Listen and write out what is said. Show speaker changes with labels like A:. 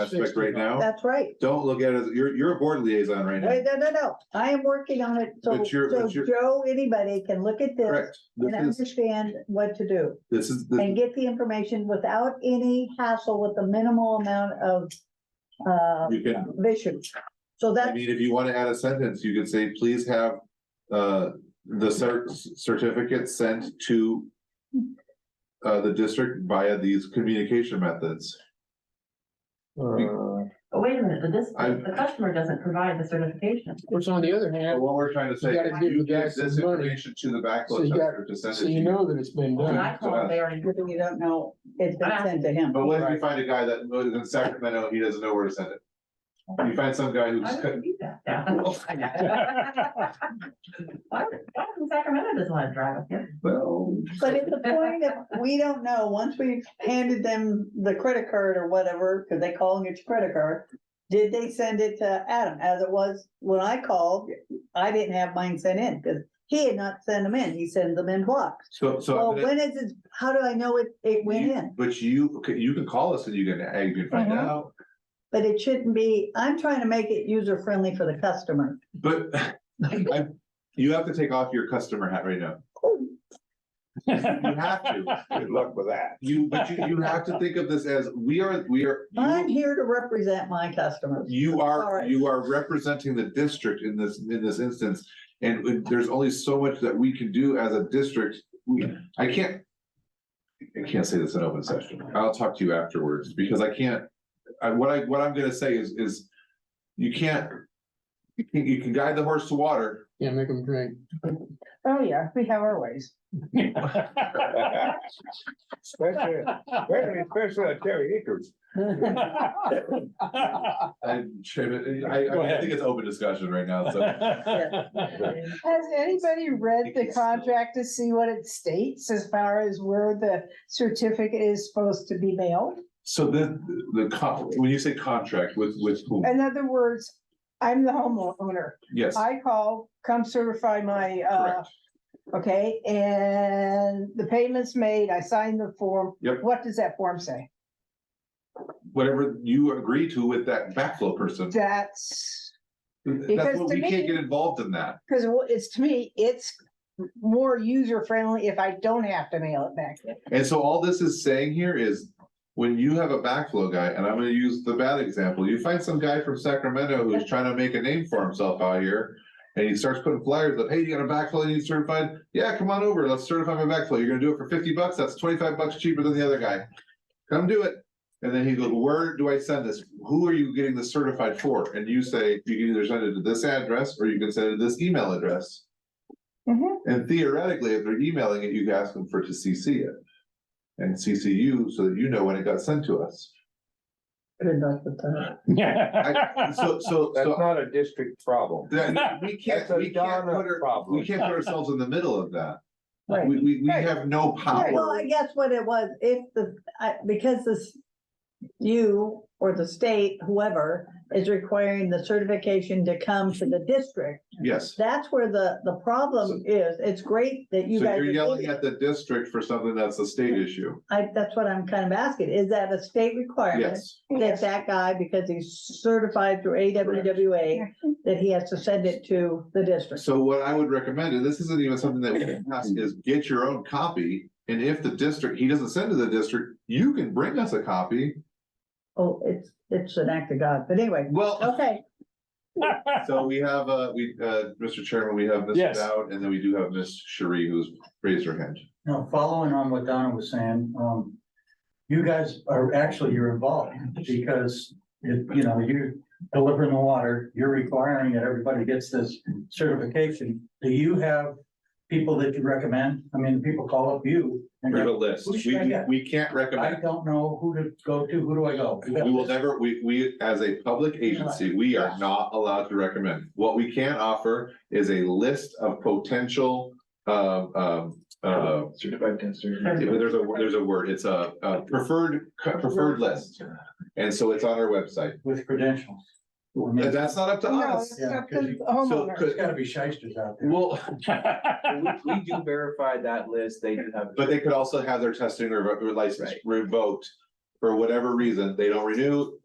A: aspect right now.
B: That's right.
A: Don't look at it, as- you're, you're a board liaison right now,
B: Wait, no, no, no. I am working on it. So,
A: But you're-
B: so
A: but you're-
B: Joe, anybody can look at this
A: correct?
B: and
A: This is,
B: understand what to do
A: this is, the-
B: and get the information without any hassle with the minimal amount of uh,
A: you can,
B: vision. So
A: I
B: that's
A: mean, if you want to add a sentence, you could say, please have, uh, the cer- certificate sent to uh, the district via these communication methods.
C: Uh,
D: But wait a minute, but this,
A: I-
D: the customer doesn't provide the certification.
C: Of course, on the other
A: But
C: hand,
A: What we're trying to say,
C: You gotta give
A: you
C: the guy
A: give this
C: some money.
A: information to the
C: So
A: backhoe
C: you got-
A: tester to send it
C: so
A: to
C: you
A: you.
C: know that it's been
D: When
C: done.
D: I call, they already,
B: But then you don't know it's been sent to him.
A: But what if you
C: Right.
A: find a guy that lives in Sacramento, he doesn't know where to send it? You find some guy who's,
D: I don't need that. Yeah. Why, why does Sacramento doesn't want to drive up here?
A: well,
B: But at the point of, we don't know, once we've handed them the credit card or whatever, because they call it your credit card. Did they send it to Adam as it was when I called? I didn't have mine sent in because he had not sent them in. He sends them in blocks.
A: so, so. I'm
B: Well,
A: gonna-
B: when is it, how do I know it, it went
A: You-
B: in?
A: But you, okay, you can call us and you can, uh, you can find
B: Mhm.
A: out,
B: But it shouldn't be, I'm trying to make it user friendly for the customer.
A: but I, you have to take off your customer hat right now. You have to. Good luck with that. You, but you, you have to think of this as, we are, we are, you-
B: I'm here to represent my customers.
A: you are,
B: Sorry.
A: you are representing the district in this, in this instance. And when- there's only so much that we can do as a district. We- I can't, I can't say this in open session. I'll talk to you afterwards because I can't, I, what I, what I'm gonna say is, is you can't, you can, you can guide the horse to water.
C: Yeah, make them drink.
E: Oh, yeah, we have our ways.
F: Especially, especially at Terry Acres.
A: And Chairman, I,
F: Go
A: I
F: ahead.
A: think it's open discussion right now, so.
E: Has anybody read the contract to see what it states as far as where the certificate is supposed to be mailed?
A: So the, the, con- when you say contract with, with whom?
E: In other words, I'm the homeowner.
A: Yes,
E: Uh, I call, come certify my, uh,
A: correct.
E: okay, and the payment's made, I sign the form.
A: Yep.
E: What does that form say?
A: Whatever you agree to with that backflow person.
E: That's,
A: That's
E: Because
A: what,
E: to
A: we can't
E: me-
A: get involved in that.
E: because it's, to me, it's more user friendly if I don't have to mail it back.
A: And so all this is saying here is when you have a backflow guy, and I'm gonna use the bad example, you find some guy from Sacramento who's trying to make a name for himself out here. And he starts putting flyers up, hey, you got a backflow you need certified? Yeah, come on over, let's certify my backflow. You're gonna do it for fifty bucks, that's twenty-five bucks cheaper than the other guy. Come do it. And then he goes, where do I send this? Who are you getting this certified for? And you say, you can either send it to this address or you can send it to this email address.
E: Mhm.
A: And theoretically, if they're emailing it, you can ask them for to CC it and CCU so that you know when it got sent to us. I- So, so,
F: That's
A: so
F: not a district problem.
A: that- we can't,
F: That's a
A: we can't
F: Donna
A: put our,
F: problem.
A: we can't put ourselves in the middle of that.
E: Right.
A: We, we, we
E: Right.
A: have no
B: Well, I
A: power.
B: guess what it was, if the, I, because this, you or the state, whoever, is requiring the certification to come to the district,
A: Yes.
B: that's where the, the problem is. It's great that
A: So
B: you guys.
A: you're
B: are
A: yelling
B: doing
A: at
B: it.
A: the district for something that's a state issue.
B: I, that's what I'm kind of asking. Is that a state requirement?
A: Yes.
B: That that guy, because he's certified through AWWA, that he has to send it to the district?
A: So what I would recommend, and this isn't even something that we can
F: Mm.
A: ask, is get your own copy. And if the district, he doesn't send to the district, you can bring us a copy.
B: Oh, it's, it's an act of God. But anyway,
A: Well,
B: okay.
A: so we have, uh, we, uh, Mr. Chairman, we have Mr.
F: Yes.
A: Dowd, and then we do have Ms. Cherie who's raised her hand.
G: Now, following on what Donna was saying, um, you guys are actually, you're involved because if, you know, you're delivering the water, you're requiring that everybody gets this certification. Do you have people that you recommend? I mean, people call up you and
A: We have a
G: go,
A: list.
G: Who
A: We,
G: should I
A: we-
G: get?
A: we can't
G: I
A: recommend.
G: don't know who to go to. Who do I go?
A: We will never, we, we, as a public agency, we are not allowed to recommend. What we can offer is a list of potential, uh, um, uh,
F: Certified
A: there's a, there's a word, it's a, a preferred, preferred list. And so it's on our website.
G: With credentials.
A: And that's not up to
E: No,
A: us.
E: it's up to
G: Yeah, 'cause you-
E: the
A: So,
E: homeowner.
G: There's
A: could-
G: gotta be shysters out there.
A: well,
F: district.
H: We we do verify that list, they do have.
A: but they could also have their testing or license
H: Right.
A: revoked for whatever reason. They don't renew,